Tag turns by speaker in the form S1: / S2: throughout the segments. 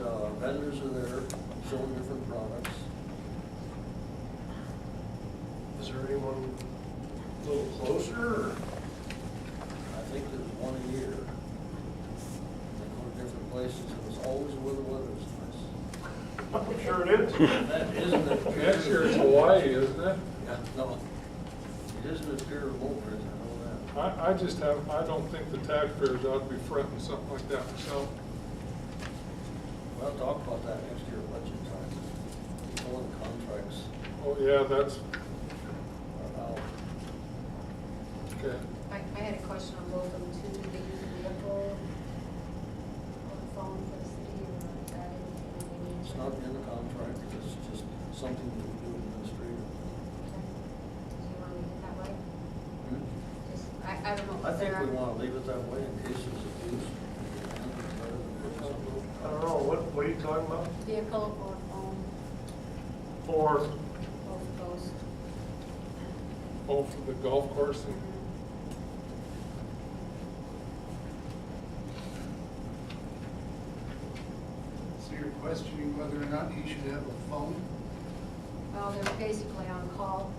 S1: Uh, show different products.
S2: Is there anyone a little closer? or-
S1: I think there's one a year. They go to different places, and it's always where the weather's nice.
S2: I'm sure it is.
S1: That isn't a.
S3: Next year it's Hawaii, isn't it?
S1: Yeah, no. It isn't a pure remote prison, I know that.
S3: I, I just have, I don't think the taxpayers ought to be fronting something like that myself.
S1: We'll talk about that next year budget time. People and contracts
S3: Oh, yeah, that's,
S1: are out.
S3: okay.
S4: I, I had a question on both of them too, do they use a vehicle or a phone for the city or is that anything they need?
S1: It's not in the contract, it's just something that we do administratively.
S4: Okay.
S2: Mm-hmm.
S4: Do you want to leave it that way? Just, I, I don't know.
S1: I think we
S4: Sarah-
S1: want to leave it that way in case it's abused.
S2: I don't know, what, what are you talking about?
S4: Vehicle or phone,
S2: For,
S4: both of those.
S3: Oh, for the golf course and
S1: Mm-hmm.
S5: So you're questioning whether or not he should have a phone?
S4: Well, they're basically on call,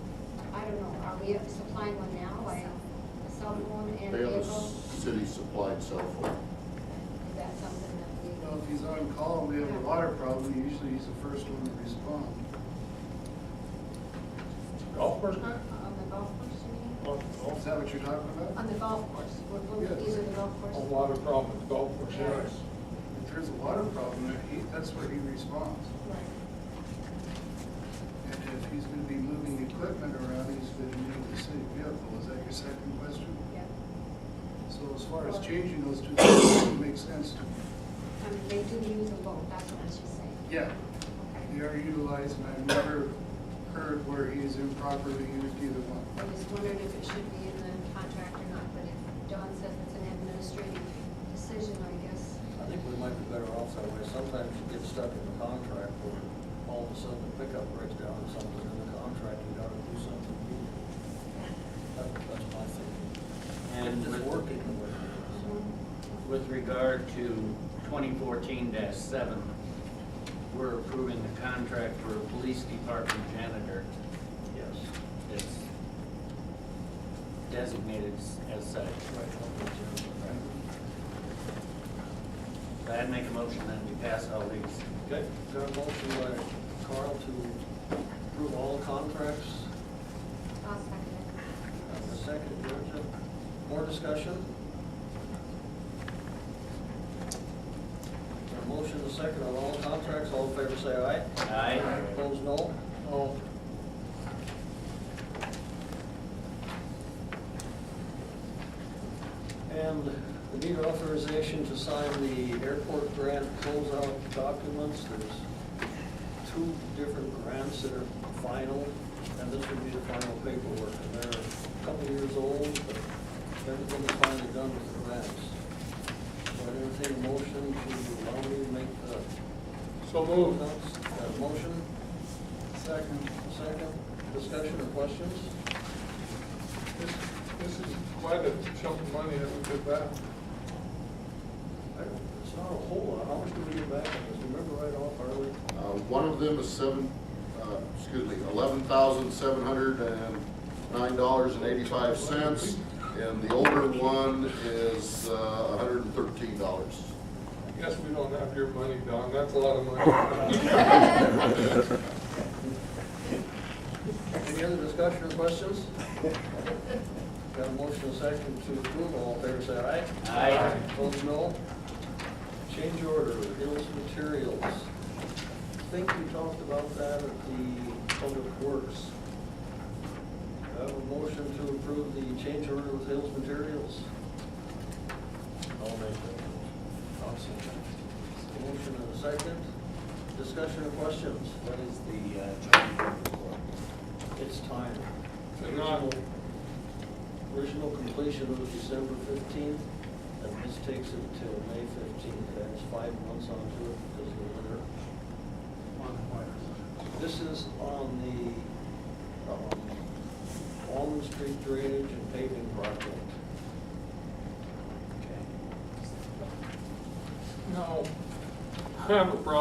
S4: I don't know, are we supplying one now, like a cell phone and
S6: They have a
S4: vehicle?
S6: city supplied cell phone.
S4: Is that something that we?
S5: Well, if he's on call and we have a water problem, usually he's the first one to respond.
S3: golf course guy?
S4: On the golf course, you mean?
S3: Oh, oh.
S5: Is that what you're talking about?
S4: On the golf course, we're, we're-
S5: Yes.
S4: these are the golf
S3: A
S4: courses.
S3: lot of problem with golf course,
S4: Yeah.
S3: yes.
S5: If there's a water problem, he, that's where he responds.
S4: Right.
S5: And if he's gonna be moving equipment around, he's gonna need the city vehicle. Is that your second question?
S4: Yeah.
S5: So as far as changing those two things, it makes sense to me.
S4: I mean, they do use a boat, that's what I should say.
S5: Yeah,
S4: Okay.
S5: they are utilized and I've never heard where he's improperly used either one.
S4: I was wondering if it should be in the contract or not, but if Don says it's an administrative decision, I guess.
S1: I think we might be better off that way. Sometimes you get stuck in the contract where all of a sudden the pickup breaks down or something in the contract, you gotta do something. That- That's my thinking. It's
S7: And with-
S1: working the way it is.
S2: Mm-hmm.
S7: With regard to twenty fourteen seven, we're approving the contract for a police department janitor.
S1: Yes.
S7: It's designated s- as such. I'd make a motion that we pass all these.
S1: Okay, got a motion by Carl to approve all contracts.
S4: I'll second it.
S1: And a second, Georgia. More discussion? Got a motion, and a second on all contracts. All in favor, say aye.
S7: Aye.
S1: Opposed, no? No. And we need authorization to sign the airport grant closeout documents. There's two different grants that are final, and this would be the final paperwork. And they're a couple years old, but everything is finally done with the grants. So I entertain a motion to allow me to make the
S3: So moved.
S1: Got a motion? Second. Second. Discussion or questions?
S3: This, this is quite a chunk of money that we get back.
S1: I don't- It's not a whole lot. How much do we get back on this? Remember right off, are we?
S6: Uh, One of them is seven, uh, excuse me, eleven thousand seven hundred and nine dollars and eighty-five cents. And the older one is uh, a hundred and thirteen dollars.
S3: I guess we don't have your money, Don, that's a lot of money.
S1: Any other discussion or questions? Got a motion and second to approve. All in favor, say aye.
S7: Aye.
S1: Opposed, no. Change order, Hills Materials. I think we talked about that at the Public Works. I have a motion to approve the change order with Hills Materials. I'll make that motion. I'll second. Motion and a second. Discussion or questions?
S7: What is the, uh, charge
S1: It's time.
S3: It's not.
S1: Original- Original completion was December fifteenth, and this takes it till May fifteenth, that's five months onto it because of the winter. This is on the, um, Almond Street drainage and paving project.
S7: for? Okay.
S3: No, I have a problem